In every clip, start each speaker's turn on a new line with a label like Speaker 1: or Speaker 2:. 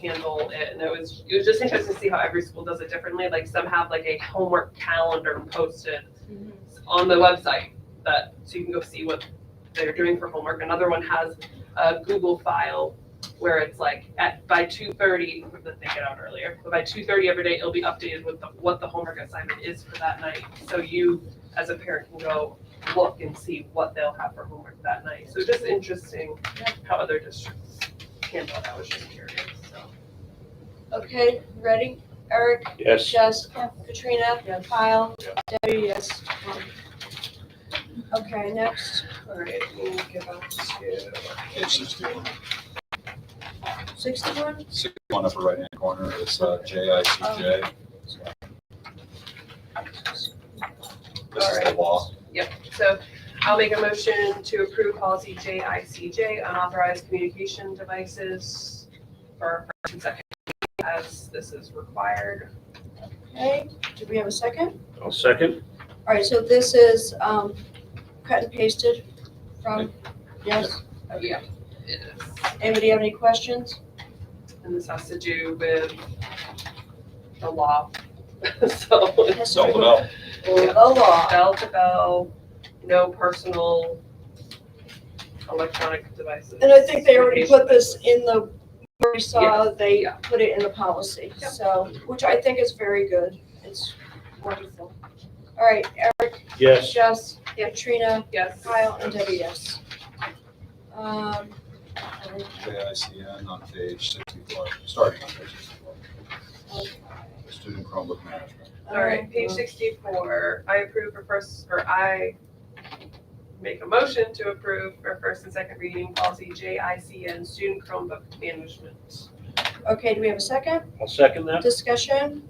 Speaker 1: handle it. And it was, it was just interesting to see how every school does it differently. Like some have like a homework calendar posted
Speaker 2: Mm-hmm.
Speaker 1: on the website that, so you can go see what they're doing for homework. Another one has a Google file where it's like at, by two thirty, we did think it out earlier, but by two thirty every day, it'll be updated with the, what the homework assignment is for that night. So you, as a parent, can go look and see what they'll have for homework that night. So just interesting
Speaker 2: Yeah.
Speaker 1: how other districts handle that, I was just curious, so.
Speaker 2: Okay, ready? Eric?
Speaker 3: Yes.
Speaker 2: Jess? Katrina?
Speaker 1: Yes.
Speaker 2: Kyle?
Speaker 3: Yeah.
Speaker 2: Debbie, yes. Tom. Okay, next. All right, we'll give up
Speaker 4: Sixty-one.
Speaker 2: sixty-one.
Speaker 4: Sixty-one upper right-hand corner is uh, JICJ. This is the law.
Speaker 1: So I'll make a motion to approve policy JICJ, unauthorized communication devices for first and second as this is required.
Speaker 2: Okay, do we have a second?
Speaker 3: I'll second.
Speaker 2: All right, so this is, um, cut and pasted from, yes.
Speaker 1: Oh, Yeah. It is.
Speaker 2: Anybody have any questions?
Speaker 1: And this has to do with the law. So
Speaker 2: Yes,
Speaker 4: Spell it out.
Speaker 2: The law.
Speaker 1: bell to bell, no personal electronic devices.
Speaker 2: And I think they already put this in the, we saw, they
Speaker 1: Yeah.
Speaker 2: put it in the policy,
Speaker 1: Yep.
Speaker 2: so, which I think is very good. It's wonderful. All right, Eric,
Speaker 3: Yes.
Speaker 2: Jess, Katrina,
Speaker 1: Yes.
Speaker 2: Kyle, and Debbie, yes. Um,
Speaker 4: JICN on page sixty-four, starting on page sixty-four,
Speaker 2: okay.
Speaker 4: student Chromebook management.
Speaker 1: All right, page sixty-four, I approve for first, or I make a motion to approve for first and second reading policy JICN, student Chromebook management.
Speaker 2: Okay, do we have a second?
Speaker 3: I'll second that.
Speaker 2: Discussion?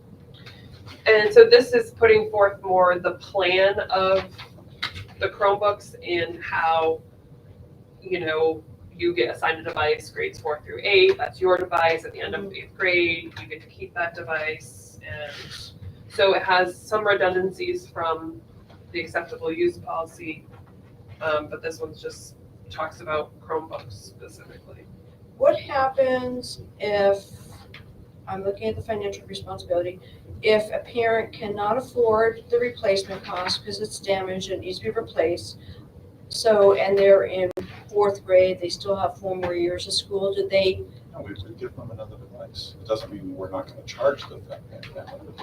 Speaker 1: And so this is putting forth more the plan of the Chromebooks and how, you know, you get assigned a device, grades four through eight, that's your device, at the end of eighth grade, you get to keep that device. And so it has some redundancies from the acceptable use policy, um, but this one's just talks about Chromebooks specifically.
Speaker 2: What happens if, I'm looking at the financial responsibility, if a parent cannot afford the replacement cost because it's damaged and needs to be replaced? So, and they're in fourth grade, they still have four more years of school, do they,
Speaker 4: No, we would give them another device. It doesn't mean we're not gonna charge them that, that- that one.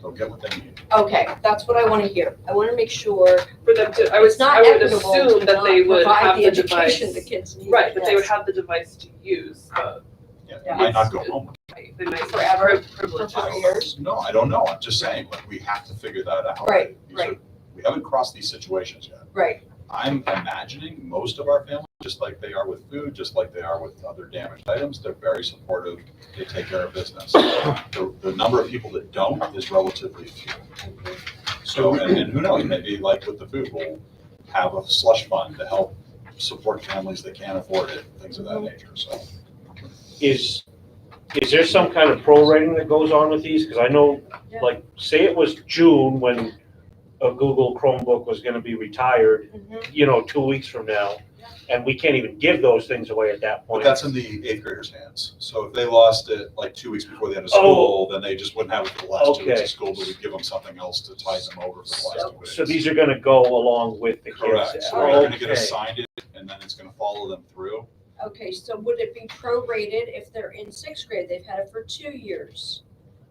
Speaker 4: They'll get what they need.
Speaker 2: okay, that's what I want to hear. I want to make sure
Speaker 1: For them to, I
Speaker 2: it's
Speaker 1: was,
Speaker 2: not
Speaker 1: I would
Speaker 2: equitable
Speaker 1: assume
Speaker 2: to
Speaker 1: that they
Speaker 2: not
Speaker 1: would have
Speaker 2: provide the
Speaker 1: the device.
Speaker 2: education the kids need.
Speaker 1: Right, but they would
Speaker 2: Yes.
Speaker 1: have the device to use, but
Speaker 4: Yeah, they
Speaker 2: Yeah.
Speaker 4: might not go home.
Speaker 1: they might still have
Speaker 2: Forever.
Speaker 1: privileges.
Speaker 2: For years.
Speaker 4: No, I don't know. I'm just saying, like, we have to figure that out.
Speaker 2: Right,
Speaker 4: These are- We haven't crossed these situations yet.
Speaker 2: Right,
Speaker 4: I'm imagining most of our families, just like they are with food, just like they are with other damaged items, they're very supportive. They take care of business. The, the number of people that don't is relatively few. So, and, and who knows, maybe like with the food, we'll have a slush fund to help support families that can't afford it, things of that
Speaker 3: Mm-hmm.
Speaker 4: nature, so.
Speaker 3: Is, is there some kind of prorating that goes on with these? Because I know,
Speaker 2: Yeah.
Speaker 3: like, say it was June when a Google Chromebook was gonna be retired,
Speaker 2: mhm,
Speaker 3: you know, two weeks from now, and we can't even give those things away at that
Speaker 4: But
Speaker 3: point.
Speaker 4: that's in the eighth graders' hands. So if they lost it like two weeks before the end of
Speaker 3: Oh.
Speaker 4: school, then they just wouldn't have it for the last two weeks
Speaker 3: Okay.
Speaker 4: of school, but we'd give them something else to tide them over for the last two weeks.
Speaker 3: So these are gonna go along with the kids.
Speaker 4: Correct, so they're gonna get assigned it, and then it's gonna follow them through.
Speaker 2: okay, so would it be prorated if they're in sixth grade, they've had it for two years?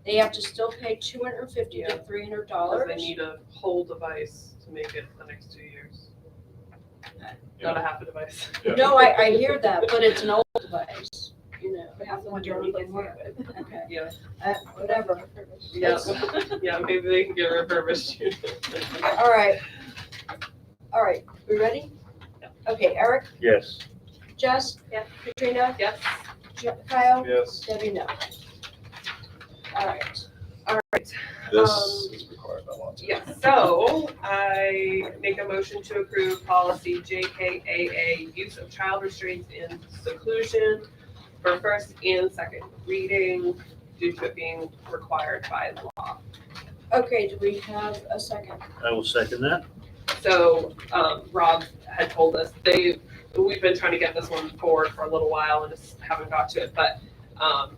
Speaker 2: They have to still pay two hundred and fifty to three hundred dollars?
Speaker 1: Because they need a whole device to make it the next two years. Not a half a device.
Speaker 4: Yeah.
Speaker 2: No, I, I hear that, but it's an old device, you know.
Speaker 5: Half the one you're replacing.
Speaker 2: Okay,
Speaker 1: Yeah,
Speaker 2: uh, whatever.
Speaker 1: yeah,
Speaker 2: That's-
Speaker 1: yeah, maybe they can get refurbished.
Speaker 2: All right. All right, we ready?
Speaker 1: Yeah.
Speaker 2: Okay, Eric,
Speaker 3: Yes.
Speaker 2: Jess?
Speaker 1: Yeah.
Speaker 2: Katrina,
Speaker 1: Yes,
Speaker 2: Jo- Kyle,
Speaker 3: Yes.
Speaker 2: Debbie, no. All right,
Speaker 1: all right.
Speaker 4: This
Speaker 1: Um,
Speaker 4: is required by law. too.
Speaker 1: Yeah, so I make a motion to approve policy JKAA, use of child restraints in seclusion for first and second reading due to it being required by law.
Speaker 2: okay, do we have a second?
Speaker 3: I will second that.
Speaker 1: So, um, Rob had told us, they, we've been trying to get this one forward for a little while and just haven't got to it, but, um,